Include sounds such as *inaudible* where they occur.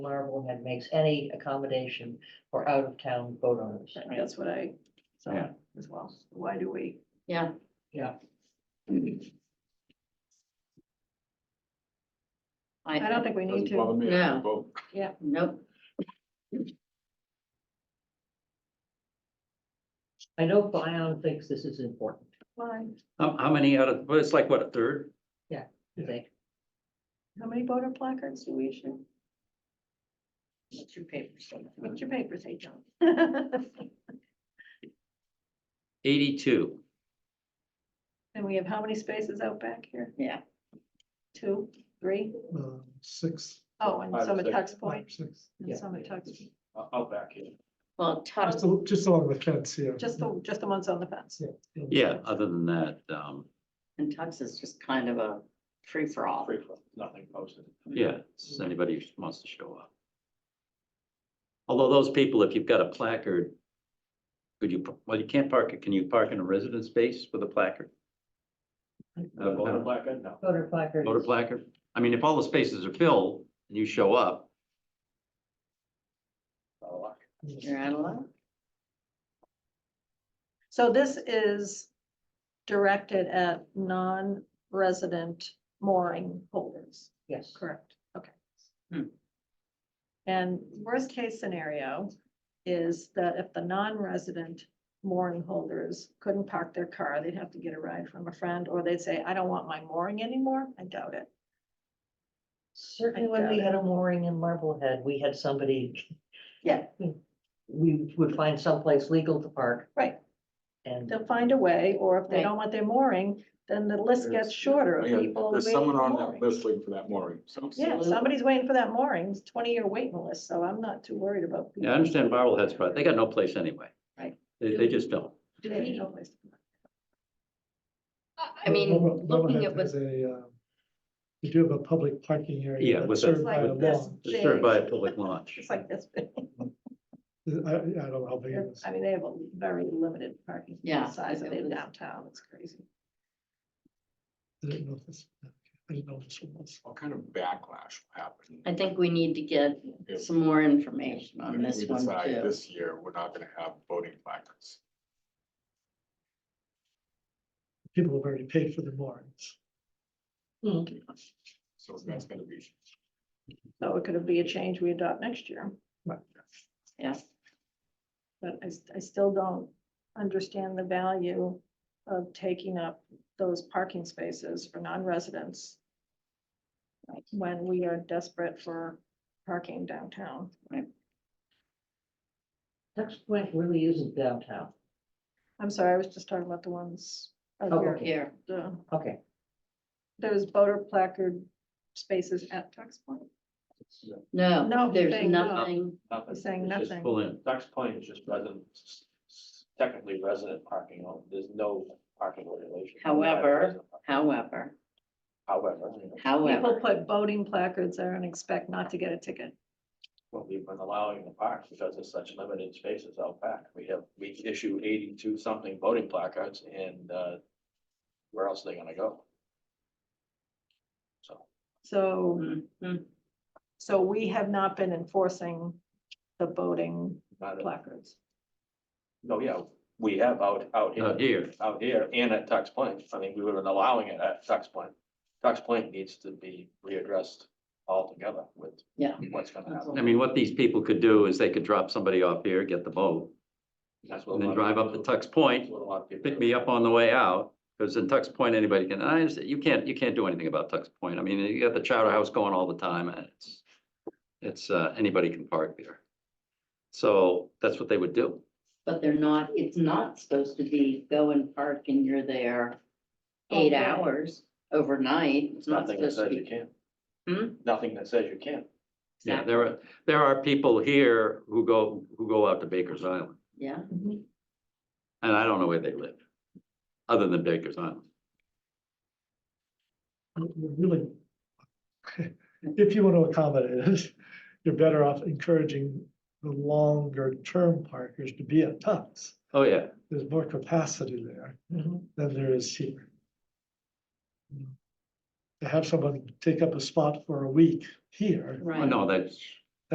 Honorable and makes any accommodation for out-of-town boat owners. I mean, That's what I saw Yeah. as well. Why do we? Yeah, I don't think we need Doesn't bother to. me. I Yeah. vote. Yeah. Nope, I know Bion thinks this is important, Why? How, how many out of, well, it's like what, a third? I think. How many voter placards do we issue? it's your papers. What's your paper say, *laughs* John? Eighty-two. And we have how many spaces out back here? Yeah, Two, three? uh, six, Oh, and Five, some at six. Tux Point, five, six. Yeah. and some at Tux. I'll, I'll back you. well, Just, Tux, al- just along the fence here. Just the, just the ones on the fence. Yeah. Yeah, other than that, um, and Tux is just kind of a free-for-all. Free for nothing posted. yeah, it's anybody who wants to show up. Although those people, if you've got a placard, could you, well, you can't park it. Can you park in a resident space with a placard? Uh, voter placard, no. Voter placards. Voter placard? I mean, if all the spaces are filled and you show up, not a lot. You're out of luck. So this is directed at non-resident mooring holders. Yes. Correct. Okay. Hmm. And worst case scenario is that if the non-resident mooring holders couldn't park their car, they'd have to get a ride from a friend, or they'd say, I don't want my mooring anymore. I doubt it. Certainly when we had a mooring in Marblehead, we had somebody. Yeah. We would find someplace legal to park. Right. And They'll find a way, or if they Right. don't want their mooring, then the list gets There's- shorter of Yeah, people. There's waiting someone for on moorings. that list waiting for that mooring. So Yeah, if somebody's waiting for that mooring, it's twenty-year waiting list, so I'm not too worried about. yeah, I understand Marblehead's right. They got no place anyway. Right. They, they just don't. They have no place to park. I mean, Level- looking Levelhead at what's has a, uh, You do have a public parking area. Yeah, that's with a- served by Like a this. lawn. It's served by a public launch. It's like this. big. I, I don't know how big it is. I mean, they have a very limited parking. Yeah, Size of it their was- downtown, it's crazy. I didn't know if this, I didn't know if this was. What kind of backlash will happen? I think we need to get if- some more information if on this we one decide too. This year, we're not gonna have voting placards. People have already paid for the moorings. So that's gonna be. So it could be a change we adopt next year, Yeah, but I, s- I still don't understand the value of taking up those parking spaces for non-residents Right. when we are desperate for parking downtown. Tux Point really isn't downtown. I'm sorry, I was just talking about the ones out Oh, here. okay. here, The- Okay, Those voter placard spaces at Tux Point, No, no, there's saying no. nothing, You're saying It's just nothing. Pull in. Ducks Point is just resident, technically resident parking, only. there's no parking regulation. However- however, However. Oh, People however, put voting placards there and expect not to get a ticket. what we've been allowing in the parks because there's such limited spaces out back. We have, we issue eighty-two something voting placards and, uh, where else are they gonna go? So, So, mhm, so we have not been enforcing the voting not, a- placards. no, yeah, we have out, out Out here, here. out here and at Tux Point. I mean, we were allowing it at Tux Point. Tux Point needs to be readdressed altogether with Yeah. what's gonna happen. I mean, what these people could do is they could drop somebody off here, get the boat, That's what a and then lot of drive up to people- Tux that's Point, what a lot of people pick do. me up on the way out. Because in Tux Point, anybody can, and I understand, you can't, you can't do anything about Tux Point. I mean, you got the chowder house going all the time and it's, it's, uh, anybody can park there. So that's what they would do. but they're not, it's not supposed to be go and park and you're there eight Okay. hours overnight. It's not Nothing that supposed to says you be. can't. Hmm? Nothing that says you can't. Yeah, there are, there are people here who go, who go out to Baker's Island, Yeah, and I don't know where they live, other than Baker's Island. You're Really, if you want to accommodate it, you're better off encouraging the longer term parkers to be at Tux. Oh, yeah. There's more capacity there than there is here. To have someone take up a spot for a week here, Well, right. Oh, No, Oh, that's,